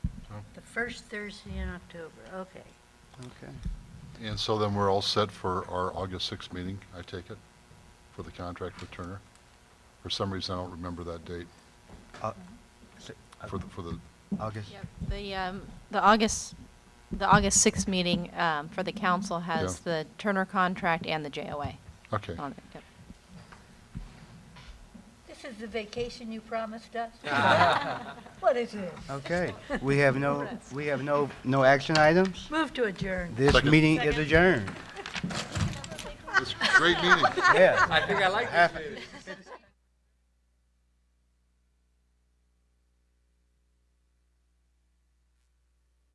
First Thursday in October, okay. Okay. And so then we're all set for our August 6th meeting, I take it, for the contract with Turner? For some reason, I don't remember that date Au- is it for the, for the, August? Yep, The, um, the August, the August 6th meeting um, for the council has Yeah. the Turner contract and the JOA. okay. on it. Yep. This is the vacation you promised us? What is this? Okay, we have no, we have no, no action items. Move to adjourn. This Second. meeting is adjourned. It's a great meeting. Yes. I think I like this meeting.